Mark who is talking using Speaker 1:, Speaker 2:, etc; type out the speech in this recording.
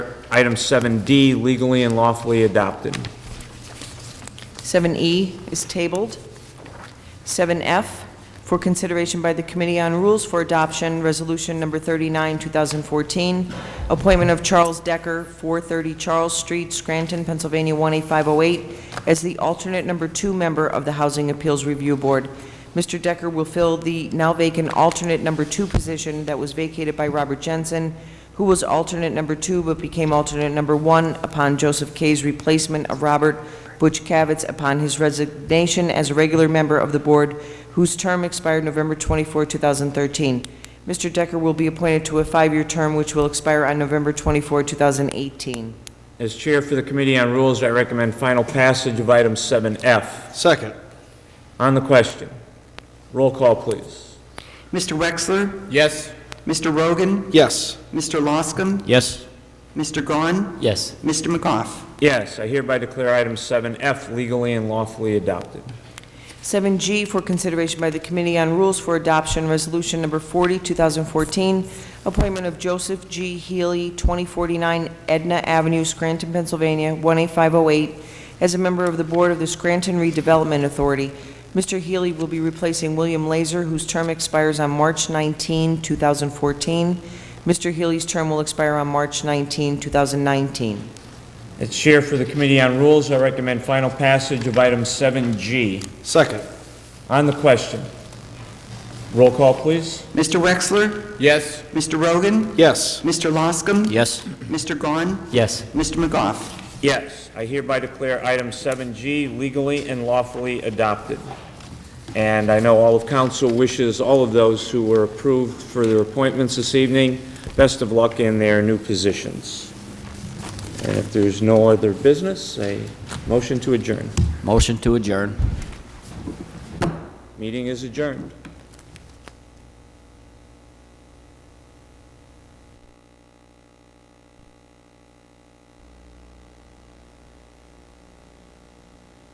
Speaker 1: Item 7D, legally and lawfully adopted.
Speaker 2: 7E E is tabled. 7F, for consideration by the Committee on Rules for Adoption, Resolution Number 39, 2014, appointment of Charles Decker, 430 Charles Street, Scranton, Pennsylvania 18508, as the alternate number two member of the Housing Appeals Review Board. Mr. Decker will fill the now vacant alternate number two position that was vacated by Robert Jensen, who was alternate number two but became alternate number one upon Joseph Kay's replacement of Robert Butch Cavitz upon his resignation as a regular member of the board, whose term expired November 24, 2013. Mr. Decker will be appointed to a five-year term which will expire on November 24, 2018.
Speaker 1: As Chair for the Committee on Rules, I recommend final passage of item 7F.
Speaker 3: Second.
Speaker 1: On the question, roll call, please.
Speaker 4: Mr. Wexler?
Speaker 3: Yes.
Speaker 4: Mr. Rogan?
Speaker 3: Yes.
Speaker 4: Mr. Loscom?
Speaker 5: Yes.
Speaker 4: Mr. Gahn?
Speaker 5: Yes.
Speaker 4: Mr. McGough?
Speaker 1: Yes, I hereby declare item 7F legally and lawfully adopted.
Speaker 2: 7G for consideration by the Committee on Rules for Adoption, Resolution Number 40, 2014, appointment of Joseph G. Healy, 2049 Edna Avenue, Scranton, Pennsylvania, 18508, as a member of the Board of the Scranton Redevelopment Authority. Mr. Healy will be replacing William Laser, whose term expires on March 19, 2014. Mr. Healy's term will expire on March 19, 2019.
Speaker 1: As Chair for the Committee on Rules, I recommend final passage of item 7G.
Speaker 3: Second.
Speaker 1: On the question, roll call, please.
Speaker 4: Mr. Wexler?
Speaker 3: Yes.
Speaker 4: Mr. Rogan?
Speaker 3: Yes.
Speaker 4: Mr. Loscom?
Speaker 5: Yes.
Speaker 4: Mr. Gahn?
Speaker 5: Yes.
Speaker 4: Mr. McGough?
Speaker 1: Yes, I hereby declare item 7G legally and lawfully adopted. And I know all of council wishes all of those who were approved for their appointments this evening best of luck in their new positions. And if there's no other business, a motion to adjourn.
Speaker 5: Motion to adjourn.
Speaker 1: Meeting is adjourned.